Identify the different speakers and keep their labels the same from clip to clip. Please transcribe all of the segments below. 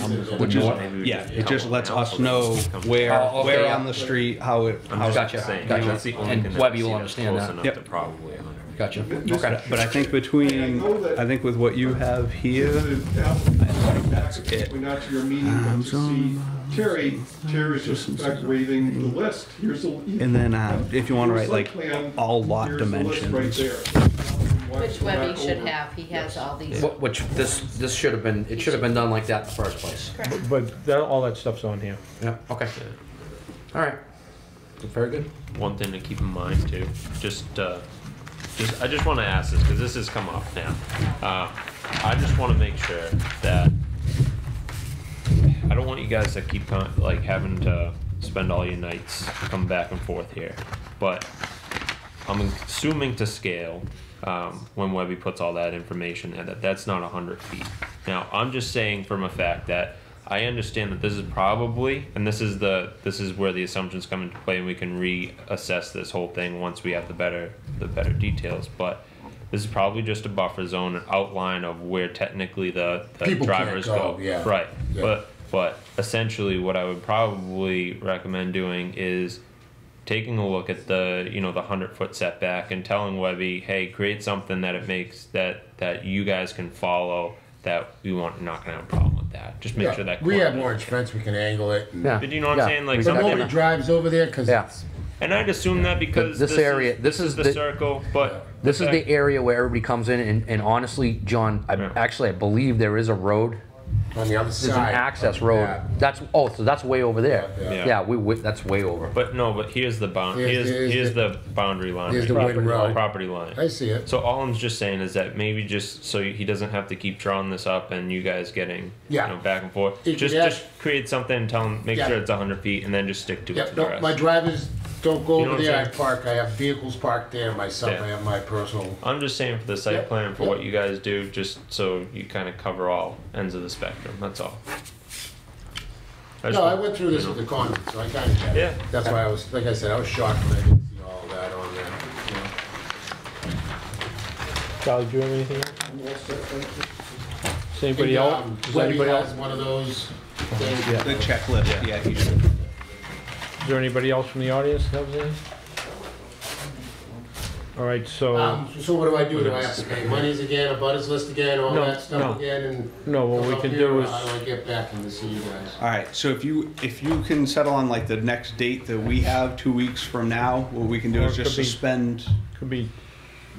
Speaker 1: Which is,
Speaker 2: Maybe we
Speaker 1: yeah,
Speaker 2: just
Speaker 1: it
Speaker 2: come
Speaker 1: just lets
Speaker 2: around
Speaker 1: us
Speaker 2: so that
Speaker 1: know
Speaker 2: we can come-
Speaker 1: where,
Speaker 3: Oh, okay,
Speaker 1: where
Speaker 3: yeah.
Speaker 1: on the street, how it, how.
Speaker 2: I'm just
Speaker 3: Gotcha,
Speaker 2: saying,
Speaker 3: gotcha.
Speaker 2: that's the only
Speaker 3: And
Speaker 2: thing that
Speaker 3: Webb,
Speaker 2: I've
Speaker 3: you'll
Speaker 2: seen that's
Speaker 3: understand
Speaker 2: close
Speaker 3: that.
Speaker 2: enough
Speaker 1: Yep.
Speaker 2: to Probably. a hundred.
Speaker 3: Gotcha.
Speaker 1: But
Speaker 3: Okay.
Speaker 1: but I think between, I think with what you have here,
Speaker 4: We're not to your meeting, but to see Terry, Terry's just in fact waving the list, here's the.
Speaker 1: and then uh, if you want to write like all lot dimensions.
Speaker 4: Which
Speaker 5: Which Webby should have, he has all these.
Speaker 3: Wh- Which, this, this should have been, it should have been done like that in the first place.
Speaker 6: But that, all that stuff's on here.
Speaker 3: Yeah, okay. All right. Very good.
Speaker 2: One thing to keep in mind too, just, uh, just, I just wanna ask this, cause this has come up now. Uh, I just wanna make sure that, I don't want you guys to keep con, like, having to spend all your nights coming back and forth here. But I'm assuming to scale, um, when Webby puts all that information in, that that's not hundred feet. Now, I'm just saying from a fact that I understand that this is probably, and this is the, this is where the assumptions come into play and we can reassess this whole thing once we have the better, the better details, but this is probably just a buffer zone, an outline of where technically the, the
Speaker 7: People can't
Speaker 2: drivers
Speaker 7: go,
Speaker 2: go.
Speaker 7: yeah.
Speaker 2: Right,
Speaker 7: Yeah.
Speaker 2: but, but essentially what I would probably recommend doing is taking a look at the you know the hundred foot setback and telling Webby, hey, create something that it makes that that you guys can follow that we want not gonna have a problem with that. Just make
Speaker 7: Yeah,
Speaker 2: sure that
Speaker 7: We have
Speaker 2: coordinates.
Speaker 7: orange fence, we can angle it. and-
Speaker 2: But you know what I'm saying? Like
Speaker 7: But
Speaker 2: something-
Speaker 7: nobody drives over there because
Speaker 3: Yeah.
Speaker 7: it's
Speaker 2: And I'd assume that because
Speaker 3: This area-
Speaker 2: is,
Speaker 3: this
Speaker 2: is,
Speaker 3: is
Speaker 2: the,
Speaker 3: the-
Speaker 2: circle, but
Speaker 3: This is
Speaker 2: fact-
Speaker 3: the area where everybody comes in, and, and honestly, John, I,
Speaker 2: Yeah.
Speaker 3: actually, I believe there is a road.
Speaker 7: on the other
Speaker 3: There's an
Speaker 7: side.
Speaker 3: access
Speaker 7: of
Speaker 3: road.
Speaker 7: that.
Speaker 3: That's, oh, so that's way over there.
Speaker 7: Yeah.
Speaker 2: Yeah.
Speaker 3: Yeah, we, we, that's way over.
Speaker 2: But no, but here's the bound.
Speaker 7: Here's-
Speaker 2: Here's here's,
Speaker 7: here's
Speaker 2: the, boundary line.
Speaker 7: here's the
Speaker 2: right?
Speaker 7: wooden road.
Speaker 2: Property line.
Speaker 7: I see it.
Speaker 2: So all I'm just saying is that maybe just so he doesn't have to keep drawing this up and you guys getting
Speaker 7: Yeah.
Speaker 2: you know, back and forth.
Speaker 7: It-
Speaker 2: just
Speaker 7: yeah.
Speaker 2: just create something and tell him make
Speaker 7: Yeah.
Speaker 2: sure it's 100 feet and then just stick to it
Speaker 7: Yeah,
Speaker 2: for the
Speaker 7: no,
Speaker 2: rest.
Speaker 7: my drivers don't go
Speaker 2: You know
Speaker 7: over
Speaker 2: what I'm
Speaker 7: there. I
Speaker 2: saying?
Speaker 7: park, I have vehicles parked there myself.
Speaker 2: Yeah.
Speaker 7: I have my personal.
Speaker 2: I'm just saying for the site
Speaker 7: Yeah,
Speaker 2: plan for
Speaker 7: yeah.
Speaker 2: what you guys do, just so you kind of cover all ends of the spectrum. That's all. I just
Speaker 7: No, I
Speaker 2: want-
Speaker 7: went through this with the condo, so I kind of get it.
Speaker 2: Yeah.
Speaker 7: That's why I was, like I said, I was shocked when I didn't see all that on there. you know.
Speaker 6: Charlie, do you have anything? else? Does anybody
Speaker 7: And,
Speaker 6: else?
Speaker 7: um,
Speaker 6: Does
Speaker 7: Webby
Speaker 6: anybody else?
Speaker 7: has one of those things.
Speaker 1: The checklist, yeah, you should.
Speaker 6: Is there anybody else from the audience that was in? All right, so,
Speaker 7: Um, so what do I do? Do I have to pay monies again, a butters list again, all
Speaker 6: No,
Speaker 7: that stuff
Speaker 6: no.
Speaker 7: again? and
Speaker 6: No, what
Speaker 7: come
Speaker 6: we
Speaker 7: up
Speaker 6: can
Speaker 7: here,
Speaker 6: do
Speaker 7: or
Speaker 6: is-
Speaker 7: How do I get back and see you guys?
Speaker 1: All right, so if you, if you can settle on like the next date that we have, two weeks from now, what we can do
Speaker 6: Or
Speaker 1: is
Speaker 6: it
Speaker 1: just
Speaker 6: could be-
Speaker 1: suspend.
Speaker 6: could be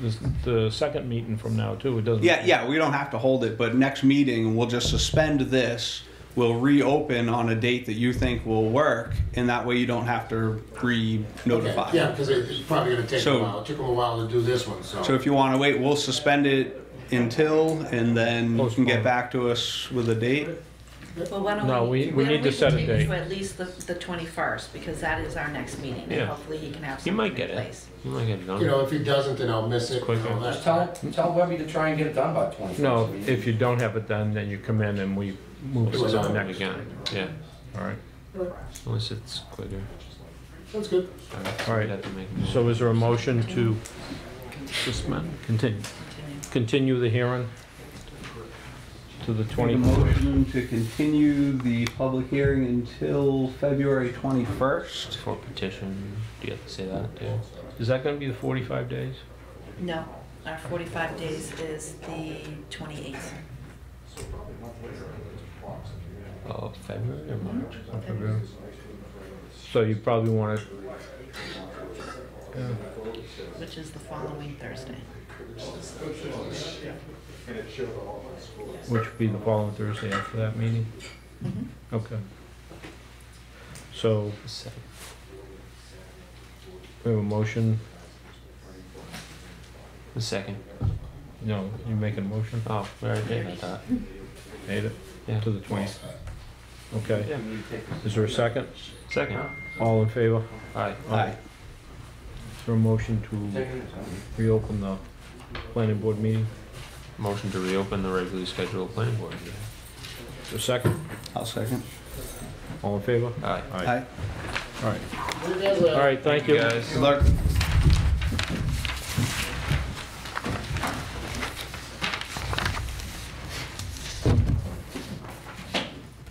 Speaker 6: this- the second meeting from now, too, it doesn't.
Speaker 1: Yeah, yeah, we don't have to hold it, but next meeting, we'll just suspend this. We'll reopen on a date that you think will work, and that way you don't have to re-notify.
Speaker 7: Yeah, because it's probably gonna take a
Speaker 1: So-
Speaker 7: while. It took them a while to do this one, so.
Speaker 1: So if you want to wait, we'll suspend it until, and then you can
Speaker 6: Postpone.
Speaker 1: get back to us with a date.
Speaker 5: Well, why don't
Speaker 6: No, we-
Speaker 5: why
Speaker 6: we
Speaker 5: don't
Speaker 6: need to set a
Speaker 5: continue
Speaker 6: date.
Speaker 5: To at least the, the twenty-first, because that is our next meeting,
Speaker 2: Yeah.
Speaker 5: and hopefully he can have
Speaker 2: You might
Speaker 5: something
Speaker 2: get
Speaker 5: in
Speaker 2: it.
Speaker 5: place.
Speaker 2: You might get it done.
Speaker 7: You know, if he doesn't, then I'll miss it. and
Speaker 2: Quicker.
Speaker 7: all that.
Speaker 3: Just tell, tell Webby to try and get it done by twenty.
Speaker 6: No, if you don't have it done, then you come in and we move it
Speaker 7: We'll
Speaker 6: to
Speaker 7: do
Speaker 6: the
Speaker 7: it
Speaker 6: next.
Speaker 2: Again, yeah.
Speaker 6: All right,
Speaker 2: Unless it's quicker.
Speaker 7: That's good.
Speaker 6: all
Speaker 2: We'd
Speaker 6: right.
Speaker 2: have to make
Speaker 6: So is there a motion to suspend, continue, continue the hearing to the
Speaker 1: Make a
Speaker 6: 20?
Speaker 1: motion to continue the public hearing until February 21st.
Speaker 2: for petition. Do you have to say that too?
Speaker 6: Is that gonna be the 45 days?
Speaker 5: No, our forty-five days is the twenty-eighth.
Speaker 2: Oh, February or March?
Speaker 6: So you probably wanna,
Speaker 5: Which is the following Thursday.
Speaker 6: which would be the following Thursday after that meeting?
Speaker 5: Mm-hmm.
Speaker 6: Okay. So we have a motion,
Speaker 2: The second.
Speaker 6: no, you making a motion,
Speaker 2: Oh, we already did that.
Speaker 6: made it,
Speaker 2: Yeah.
Speaker 6: to the 20th. Okay,
Speaker 2: Yeah.
Speaker 6: is there a second?
Speaker 2: Second.
Speaker 6: All in favor?
Speaker 2: Aye.
Speaker 1: Aye.
Speaker 6: Is there a motion to reopen the planning board meeting?
Speaker 2: Motion to reopen the regularly scheduled planning board meeting.
Speaker 6: Is there a second?
Speaker 1: I'll second.
Speaker 6: All in favor?
Speaker 2: Aye.
Speaker 1: Aye.
Speaker 6: All right, thank you.
Speaker 2: guys.
Speaker 1: Good luck.